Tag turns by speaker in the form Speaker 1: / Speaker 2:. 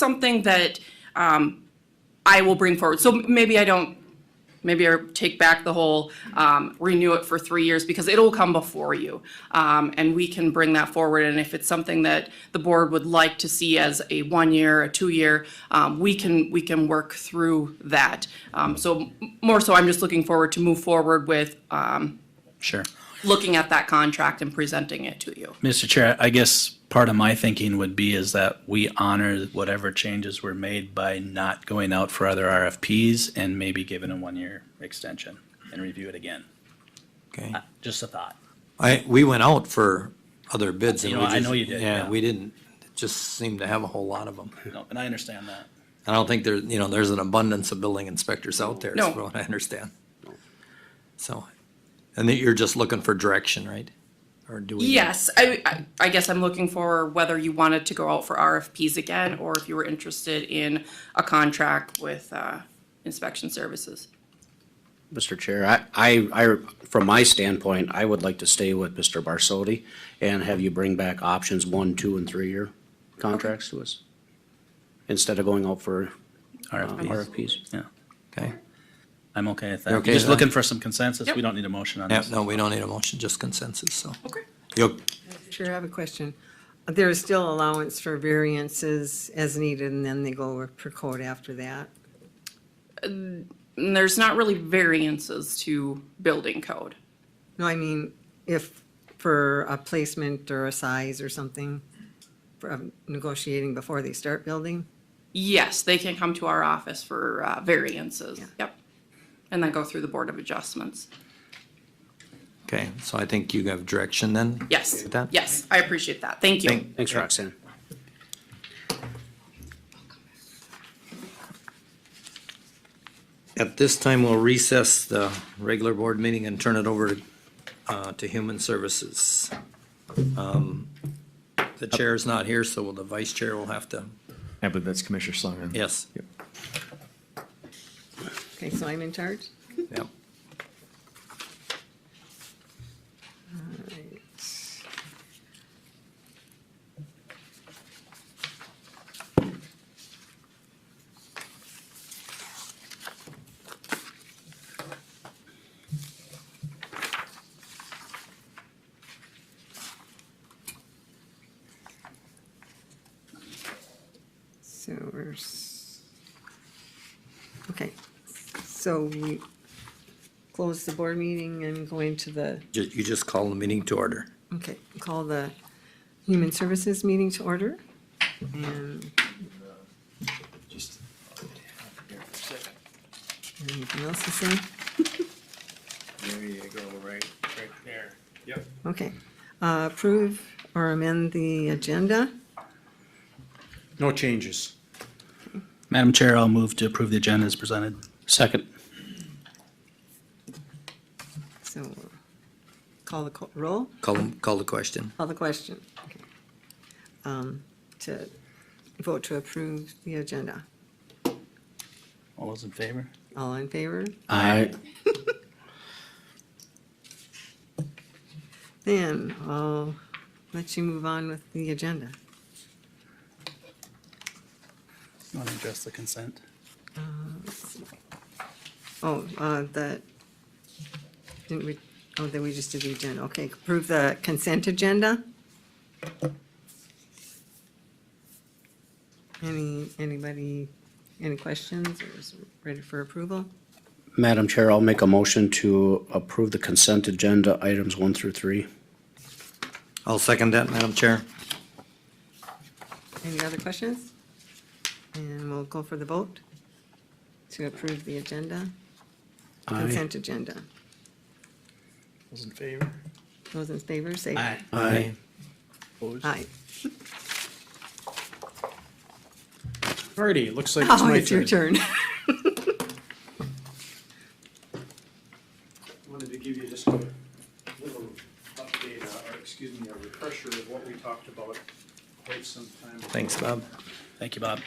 Speaker 1: something that um, I will bring forward. So maybe I don't, maybe I take back the whole um, renew it for three years because it'll come before you. Um, And we can bring that forward. And if it's something that the board would like to see as a one-year, a two-year, um, we can, we can work through that. Um, So m- more so, I'm just looking forward to move forward with um,
Speaker 2: Sure.
Speaker 1: looking at that contract and presenting it to you.
Speaker 2: Mr. Chair, I guess part of my thinking would be is that we honor whatever changes were made by not going out for other RFPs and maybe giving a one-year extension and review it again.
Speaker 3: Okay.
Speaker 2: Just a thought.
Speaker 3: I, we went out for other bids.
Speaker 2: You
Speaker 3: and
Speaker 2: know,
Speaker 3: we
Speaker 2: I
Speaker 3: just-
Speaker 2: know you did, yeah.
Speaker 3: Yeah, we didn't, it just seemed to have a whole lot of them.
Speaker 2: No, and I understand that.
Speaker 3: I don't think there, you know, there's an abundance of building inspectors out there, is
Speaker 1: No.
Speaker 3: what I understand. So, and that you're just looking for direction, right? Or do we?
Speaker 1: Yes, I, I- I guess I'm looking for whether you wanted to go out for RFPs again, or if you were interested in a contract with uh, inspection services.
Speaker 4: Mr. Chair, I, I, I- from my standpoint, I would like to stay with Mr. Barsotti and have you bring back options one, two, and three-year contracts to us instead of going out for uh,
Speaker 2: RFPs.
Speaker 4: RFPs.
Speaker 2: Yeah,
Speaker 3: Okay.
Speaker 2: I'm okay with
Speaker 3: You
Speaker 2: that.
Speaker 3: okay
Speaker 2: Just
Speaker 3: with
Speaker 2: looking for some consensus. We
Speaker 1: Yep.
Speaker 2: don't need a motion on
Speaker 3: Yeah,
Speaker 2: this.
Speaker 3: no, we don't need a motion, just consensus, so.
Speaker 1: Okay.
Speaker 3: You'll,
Speaker 5: Sure, I have a question. There is still allowance for variances as needed, and then they go per code after that.
Speaker 1: And there's not really variances to building code.
Speaker 5: No, I mean, if, for a placement or a size or something, for um, negotiating before they start building?
Speaker 1: Yes, they can come to our office for uh, variances, yep. And then go through the Board of Adjustments.
Speaker 3: okay, so I think you have direction then?
Speaker 1: Yes,
Speaker 3: With that?
Speaker 1: yes, I appreciate that, thank you.
Speaker 4: Thanks, Roxanne.
Speaker 3: At this time, we'll recess the regular board meeting and turn it over uh, to Human Services. Um, The chair is not here, so the vice chair will have to,
Speaker 6: I believe that's Commissioner Schlangen.
Speaker 3: yes.
Speaker 6: Yep.
Speaker 5: Okay, so I'm in charge?
Speaker 3: Yep.
Speaker 5: So we're, s- okay, so we close the board meeting and go into the,
Speaker 3: Ju- You just call the meeting to order.
Speaker 5: okay, call the Human Services meeting to order. And anything else to say?
Speaker 6: There you go, right, right there. Yep.
Speaker 5: Okay. Uh, Approve or amend the agenda?
Speaker 6: No changes.
Speaker 2: Madam Chair, I'll move to approve the agenda as presented.
Speaker 4: Second.
Speaker 5: So call the co- roll,
Speaker 3: Call, them- call the question.
Speaker 5: call the question. Okay. Um, To vote to approve the agenda.
Speaker 2: All those in favor?
Speaker 5: All in favor?
Speaker 4: Aye.
Speaker 5: Then I'll let you move on with the agenda.
Speaker 2: You want to address the consent?
Speaker 5: Oh, uh, the, didn't we, oh, then we just did the agenda. Okay, approve the consent agenda? Any, anybody, any questions or is it ready for approval?
Speaker 4: Madam Chair, I'll make a motion to approve the consent agenda items one through three.
Speaker 3: I'll second that, Madam Chair.
Speaker 5: Any other questions? And we'll go for the vote to approve the agenda,
Speaker 4: Aye.
Speaker 5: consent agenda.
Speaker 6: Those in favor?
Speaker 5: Those in favor, say aye.
Speaker 4: Aye.
Speaker 6: Opposed?
Speaker 5: Aye.
Speaker 6: Alrighty, it looks like it's
Speaker 5: Oh,
Speaker 6: my
Speaker 5: it's your
Speaker 6: turn.
Speaker 5: turn.
Speaker 7: wanted to give you just a little update, uh, or excuse me, a refresher of what we talked about quite some time ago.
Speaker 3: Thanks, Bob.
Speaker 2: Thank you, Bob.